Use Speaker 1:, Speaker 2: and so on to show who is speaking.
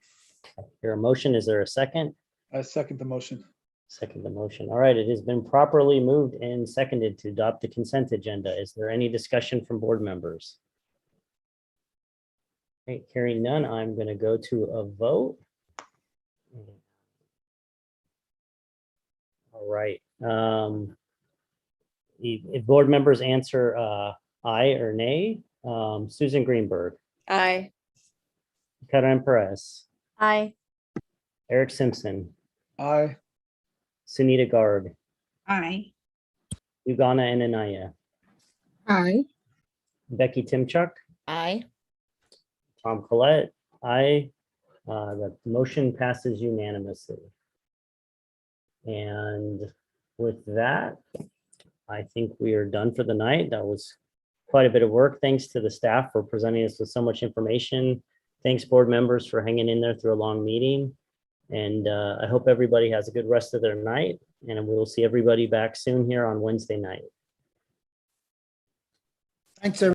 Speaker 1: Your motion, is there a second?
Speaker 2: I second the motion.
Speaker 1: Second the motion. All right, it has been properly moved and seconded to adopt the consent agenda. Is there any discussion from board members? Okay, hearing none, I'm going to go to a vote. All right. um, If if board members answer uh, aye or nay, um, Susan Greenberg,
Speaker 3: Aye.
Speaker 1: Karen Perez,
Speaker 3: Aye.
Speaker 1: Eric Simpson,
Speaker 2: Aye.
Speaker 1: Sunita Garg,
Speaker 4: Aye.
Speaker 1: Ugana Anania.
Speaker 4: Aye.
Speaker 1: Becky Timchuck,
Speaker 3: Aye.
Speaker 1: Tom Collette, aye. Uh, The motion passes unanimously. And with that, I think we are done for the night. That was quite a bit of work. Thanks to the staff for presenting us with so much information. Thanks, board members, for hanging in there through a long meeting. And uh, I hope everybody has a good rest of their night, and we will see everybody back soon here on Wednesday night.
Speaker 2: Thanks, everyone.